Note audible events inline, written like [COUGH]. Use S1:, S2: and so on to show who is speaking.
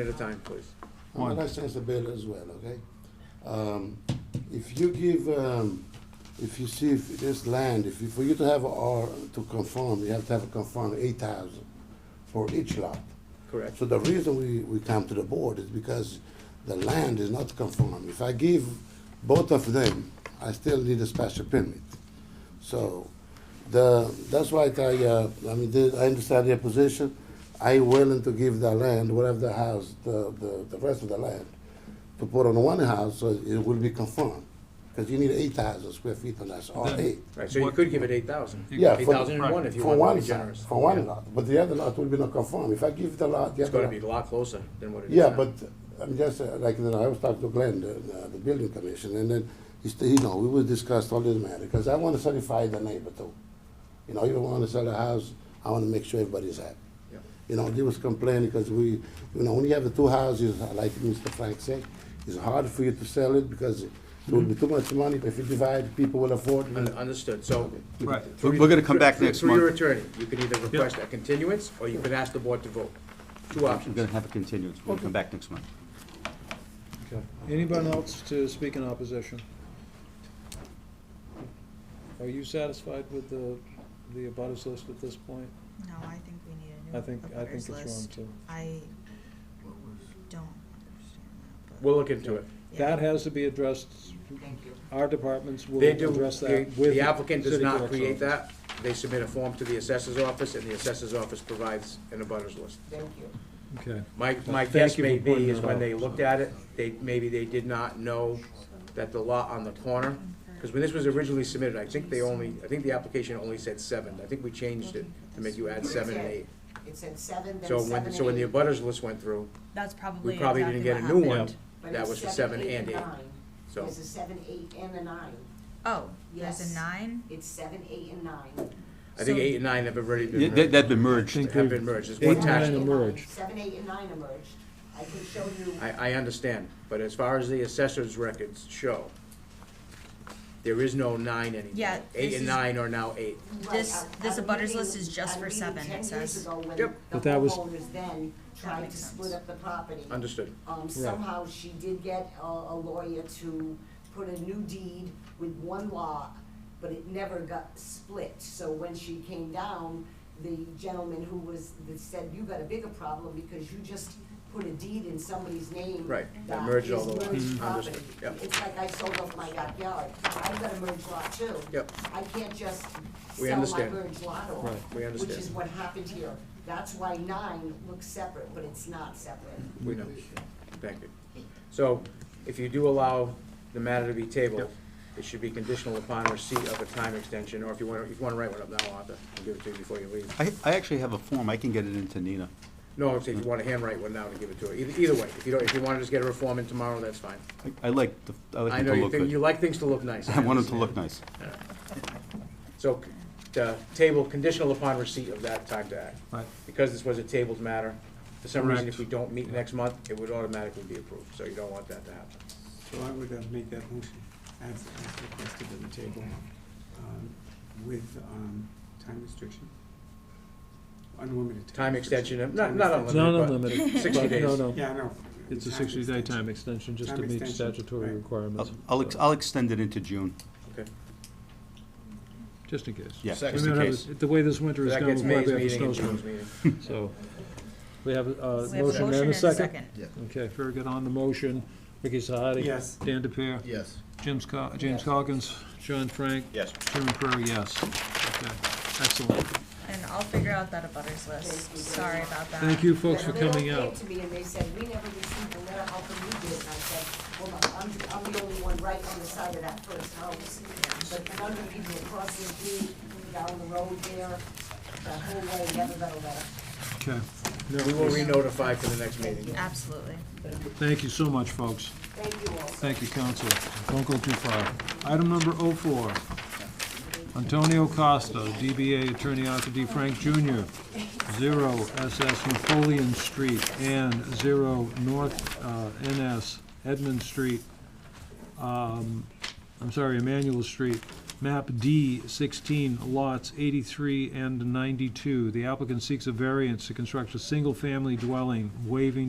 S1: At a time, please.
S2: I'm gonna say the bill as well, okay? Um, if you give, um, if you see if this land, if you, for you to have or to conform, you have to have a conform eight thousand for each lot.
S1: Correct.
S2: So the reason we, we come to the board is because the land is not conform. If I give both of them, I still need a special permit. So the, that's why I, uh, I mean, the- I understand your position. I willing to give the land, whatever the house, the, the, the rest of the land, to put on one house, so it will be conform. Because you need eight thousand square feet on that, or
S3: Then-
S2: eight.
S1: Right, so you could give it eight thousand.
S2: Yeah,
S1: Eight
S2: for-
S1: thousand and one if you
S2: For
S1: want
S2: one
S1: to be
S2: side,
S1: generous.
S2: for one
S1: Yeah.
S2: lot, but the other lot will be not conform. If I give the lot, the
S1: It's
S2: other
S1: gonna
S2: lot.
S1: be a lot closer than what it is
S2: Yeah,
S1: now.
S2: but I'm just, uh, like, you know, I was talking to Glenn, the, the- the building commission, and then he said, you know, we will discuss all this matter, because I want to satisfy the neighbor too. You know, if you want to sell a house, I want to make sure everybody's happy.
S1: Yeah.
S2: You know, they was complaining because we, you know, when you have the two houses, like Mr. Frank said, it's hard for you to sell it because it will be too much money, but if you divide, people will afford
S1: Un-
S2: it.
S1: Understood, so.
S3: Right.
S1: through-
S4: We're- we're gonna come back
S1: through-
S4: next
S1: Through your
S4: month.
S1: attorney, you can either request a continuance, or you could ask the board to vote. Two
S4: I'm
S1: options.
S4: gonna have a continuance, we'll come back next month.
S5: Okay. Anyone else to speak in opposition? Are you satisfied with the, the abutters list at this point?
S6: No, I think we need a new.
S5: I think, I think it's
S6: abutters
S5: wrong
S6: list.
S5: too.
S6: I don't understand that, but.
S1: We'll look into it.
S6: yeah.
S5: That has to be addressed,
S6: Thank you.
S5: our departments will
S1: They do,
S5: address that
S1: the
S5: with.
S1: the applicant does
S5: city
S1: not
S5: clerk's
S1: create
S5: office.
S1: that. They submit a form to the assessor's office, and the assessor's office provides an abutters list.
S6: Thank you.
S5: Okay,
S1: My, my
S5: Thank
S1: guess
S5: you
S1: may
S5: for pointing
S1: be is
S5: that
S1: when
S5: out.
S1: they looked at it, they, maybe they did not know that the lot on the corner, because when this was originally submitted, I think they only, I think the application only said seven. I think we changed it to make you add seven and eight.
S7: It said seven, then
S1: So
S7: seven
S1: when,
S7: and
S1: so when the
S7: eight.
S1: abutters list went through,
S6: That's
S1: we
S6: probably
S1: probably didn't get a new one.
S7: But
S1: That
S7: it's
S1: was the seven and eight,
S7: nine.
S1: so.
S7: There's a seven, eight, and a nine.
S6: Oh, there's a
S7: Yes.
S6: nine?
S7: It's seven, eight, and nine.
S1: I think
S6: So-
S1: eight and nine have already
S4: Yeah,
S1: been
S4: That,
S1: merged,
S4: that'd been merged.
S1: have been merged. It's
S5: Eight
S1: one
S5: and
S1: tax.
S5: nine
S1: bill.
S5: emerged.
S7: Seven, eight, and nine emerged. I can show you,
S1: I, I understand, but as far as the assessor's records show, there is no nine anymore.
S6: Yeah,
S1: Eight
S6: this
S1: and
S6: is-
S1: nine are now eight.
S7: right,
S6: This-
S7: a-
S6: this
S7: a
S6: abutters
S7: meeting-
S6: list is just
S7: a
S6: for
S7: meeting
S6: seven, it
S7: Ten years
S6: says.
S7: ago, when
S1: Yep.
S7: the
S5: But that was-
S7: homeowners then tried
S6: makes
S7: to
S6: sense.
S7: split up the property.
S1: Understood.
S7: Um, somehow she did get a, a lawyer to put a new deed with one lot, but it never got split. So when she came down, the gentleman who was, that said, you got a bigger problem because you just put a deed in somebody's name.
S1: Right, that
S7: that
S1: merged all
S7: is
S1: the lots.
S7: merged
S1: Mhm. Understood,
S7: property.
S1: yep.
S7: It's like I sold off my backyard, I've got a merged lot too.
S1: Yep.
S7: I can't just
S1: We
S7: sell my
S1: understand.
S7: merged lot off.
S5: Right,
S1: we
S7: Which is
S1: understand.
S7: what happened here. That's why nine looks separate, but it's not separate.
S1: We know. Thank you. So if you do allow the matter to be tabled, it should be conditional upon receipt of a time extension, or if you want, if you want to write one up now, Arthur, I'll give it to you before you leave.
S4: I, I actually have a form, I can get it into Nina.
S1: No, if you want to handwrite one now to give it to her. Either, either way, if you don't, if you want to just get a reform in tomorrow, that's fine.
S4: I- I like, the I like
S1: I
S4: it
S1: know
S4: to
S1: you
S4: look
S1: think, you
S4: good.
S1: like things to look nice.
S4: [LAUGHS] I want it to look nice.
S1: So, the table conditional upon receipt of that time to act.
S3: Right.
S1: Because this was a tabled matter, for some reason, if
S3: Correct.
S1: we don't meet next month, it would automatically be approved, so you don't want that to happen.
S8: So I would uh, make that motion as, as requested at the table, um, with, um, time restriction. Unlimited.
S1: Time extension,
S8: restriction.
S1: not, not
S8: Time extension.
S5: it's not
S1: unlimited, [LAUGHS] but
S5: unlimited,
S1: 60
S5: but no,
S1: days.
S5: no,
S8: Yeah, I know.
S5: it's a sixty-day time extension just to
S8: Time
S5: meet
S8: extension,
S5: statutory
S8: right.
S5: requirements.
S4: I'll- I'll, ex- I'll extend it into June,
S1: Okay.
S5: Just in case.
S4: yeah,
S5: We
S4: just
S5: may
S4: in
S5: not have
S4: case.
S5: a- The way this winter is
S1: That
S5: going,
S1: gets
S5: we might
S1: May's
S5: have a
S1: meeting and
S5: snowstorm.
S1: June's meeting.
S5: So, we have a uh,
S6: We have a
S5: motion and a second?
S6: Yeah.
S5: Okay, very good. On the motion, Ricky Sahadi.
S8: Yes.
S5: Dan DePere.
S3: Yes.
S5: James Co- James Calkins. John Frank.
S4: Yes.
S5: Chairman Prairie, yes. Okay, excellent.
S6: And I'll figure out that abutters list. Sorry about that.
S5: Thank you folks for
S7: They all
S5: coming
S7: came
S5: out.
S7: to me and they said, we never received a letter, how come you did? And I said, well, I'm, I'm the only one right on the side of that first house. But none of the people across the street, down the road there, the whole way, never got a letter.
S5: Okay.
S1: We will re-notify for the next meeting.
S6: Absolutely.
S5: Thank you so much, folks.
S7: Thank you all.
S5: Thank you, council. Don't go too far. Item number oh four. Antonio Costa, DBA Attorney Arthur D. Frank Jr., zero SS Napoleon Street and zero North uh, NS Edmund Street, um, I'm sorry, Emmanuel Street, map D sixteen, lots eighty-three and ninety-two. The applicant seeks a variance to construct a single-family dwelling, waiving